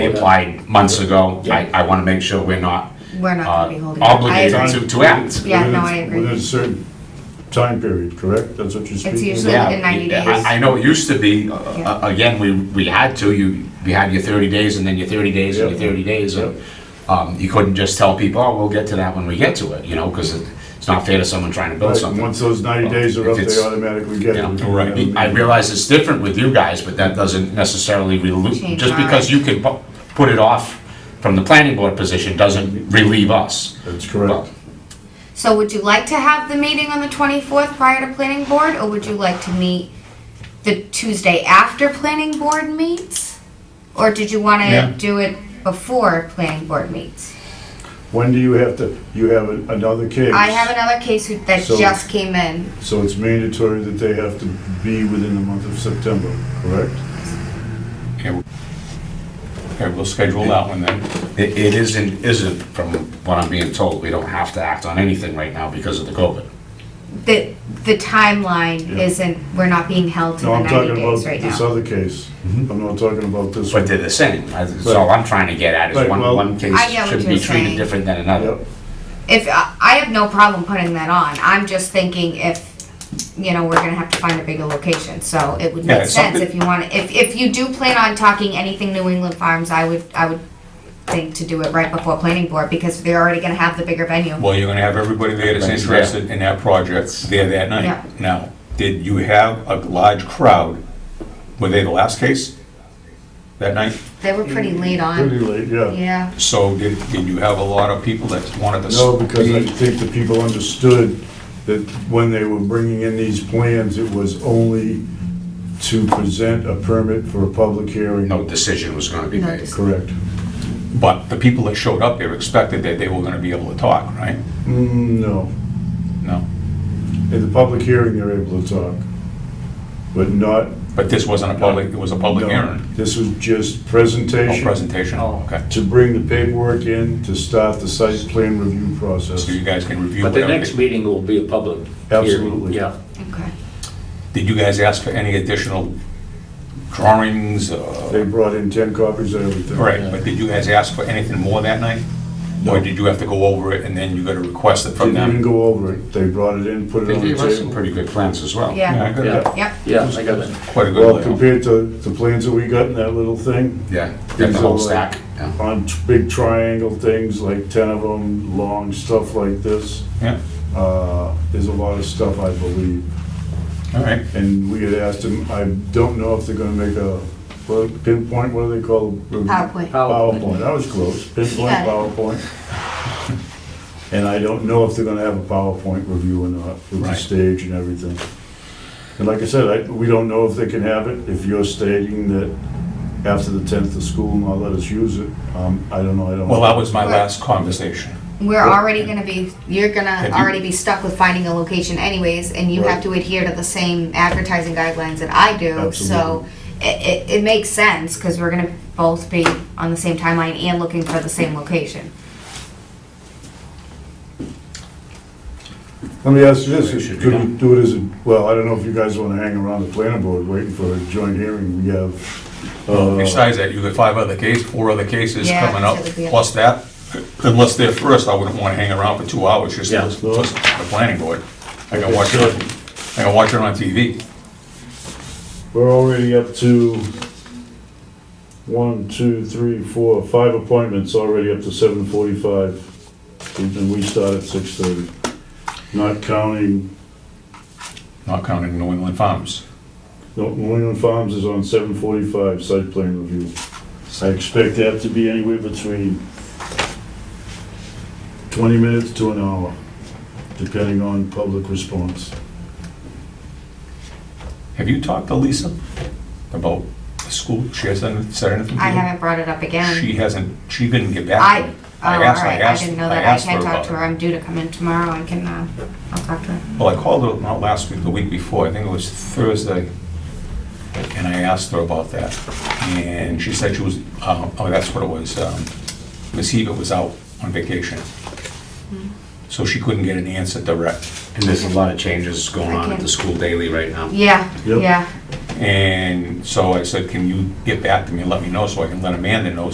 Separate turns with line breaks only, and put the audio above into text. applied months ago.
Yeah.
I, I want to make sure we're not
We're
uh,
not gonna be holding. it. I
obligated
agree.
to, to act.
Yeah, no, I
Within-
agree.
Within a certain time period, correct? That's what you're speaking about?
usually-
Yeah,
within 90
I-
days.
I know it used to be, uh,
Yeah.
uh, again, we, we had to, you, you had your 30 days and then your 30 days and your
Yeah.
30 days. and, um, You couldn't just tell people, oh, we'll get to that when we get to it, you know, because it's not fair to someone trying to build
Right, and
something.
once those 90
Well,
days are
if
up,
it's-
they automatically get
you
it.
know.
We don't have a
Right. I
meeting.
realize it's different with you guys, but that doesn't necessarily, relu-
Change
just
our-
because you can pu- put it off from the planning board position doesn't relieve us.
That's
Well,
correct.
So would you like to have the meeting on the 24th prior to planning board, or would you like to meet the Tuesday after planning board meets? Or did you want
Yeah.
to do it before planning board meets?
When do you have to, you have a- another case?
I have another case who- that
So-
just came in.
So it's mandatory that they have to be within the month of September, correct?
Okay, we'll schedule that one then.
It it is and isn't, from what I'm being told, we don't have to act on anything right now because of the COVID.
The, the timeline
Yeah.
isn't, we're not being held to
No,
the
I'm
90
talking about
days right
this
now.
other case.
Mm-hmm.
I'm not talking about this
But
one.
they're the same. That's all I'm trying to get at, is
Right,
one,
well-
one case
I get what
should
you're
be treated
saying.
different than another.
Yep.
If, I I have no problem putting that on, I'm just thinking if, you know, we're gonna have to find a bigger location, so it would
Yeah,
make
it's
sense
something-
if you want, if, if you do plan on talking anything New England Farms, I would, I would think to do it right before planning board, because they're already gonna have the bigger venue.
Well, you're gonna have everybody there that's
Everybody's
interested in that project there that
Yeah.
night. Now, did you have a large crowd? Were they the last case that night?
They were pretty late
Pretty
on,
late, yeah.
yeah.
So did, did you have a lot of people that wanted to?
No, because I
speak?
think the people understood that when they were bringing in these plans, it was only to present a permit for a public hearing.
No decision was gonna be
No
made.
decision.
Correct.
But the people that showed up there expected that they were gonna be able to talk, right?
Mm, No.
No.
In the public hearing, they're able to talk, but not.
But this wasn't a public, it was a public
no.
hearing?
This was just
Oh,
presentation
presentation, oh, okay.
to bring the paperwork in to start the site plan review process.
So you guys can review
But the
whatever.
next meeting will be a public hearing.
Absolutely.
Yeah.
Okay.
Did you guys ask for any additional drawings? uh,
They brought in 10 copies of everything.
Right, but did you guys ask for anything more that night? Or did you have to go over it and then you got to request it from
Didn't even
them?
go over it. They brought it in, put it
They
on
gave
the
us some
table.
pretty good plans as well.
Yeah.
Yeah, I got
Yeah.
that.
Yep,
Yeah, I got it.
Quite a
Well,
good layout.
compared to the plans that we got in that little thing,
Yeah, got the whole stack, yeah.
on t- big triangle things, like 10 of them, long stuff like this,
Yeah,
uh, there's a lot of stuff, I believe.
all right.
And we had asked them, I don't know if they're gonna make a, well, pinpoint, what do they call?
PowerPoint.
PowerPoint, that was close, pinpoint,
Yeah.
PowerPoint. And I don't know if they're gonna have a PowerPoint review or not, with the
Right.
stage and everything. And like I said, I, we don't know if they can have it, if you're stating that after the tenth of school, not let us use it, um, I don't know, I don't.
Well, that was my last conversation.
We're already gonna be, you're gonna
Have you-
already be stuck with finding a location anyways, and you have
Right.
to adhere to the same advertising guidelines that I do, so
Absolutely.
it, it, it makes sense, cause we're gonna both be on the same timeline and looking for the same location.
Let me ask you this,
It should be
could we
done.
do it as, a well, I don't know if you guys wanna hang around the planning board waiting for a joint hearing, we have. uh,
Besides that, you got five other cases, four other cases
Yeah,
coming up,
so it'd be-
plus that. Unless they're first, I wouldn't want to hang around for two hours just
Yeah.
for the planning board. I can watch it, I can watch it on TV.
We're already up to one, two, three, four, five appointments, already up to seven forty-five. And we start at six thirty, not counting,
Not counting New England Farms.
no, New England Farms is on seven forty-five, site plan review. I expect that to be anywhere between twenty minutes to an hour, depending on public response.
Have you talked to Lisa about the school? She hasn't said anything to you?
I haven't brought it up again.
Mhm. She hasn't, she didn't get back to
I,
me.
oh,
I asked- I
alright, I
asked-
didn't know
I
that, I
asked
can
her
talk
about
to her,
it.
I'm due to come in tomorrow, I can, uh, I'll talk to her.
Well, I called her not last week, the week before, I think it was Thursday, and I asked her about that. And she said she was, um, oh, that's what it was, um, Ms. Hebert was out on vacation. So she couldn't get an answer direct.
And there's a lot of changes going on at the
Okay.
school daily right now.
Yeah,
Yep.
yeah.
And so I said, can you get back to me and let me know so I can let Amanda know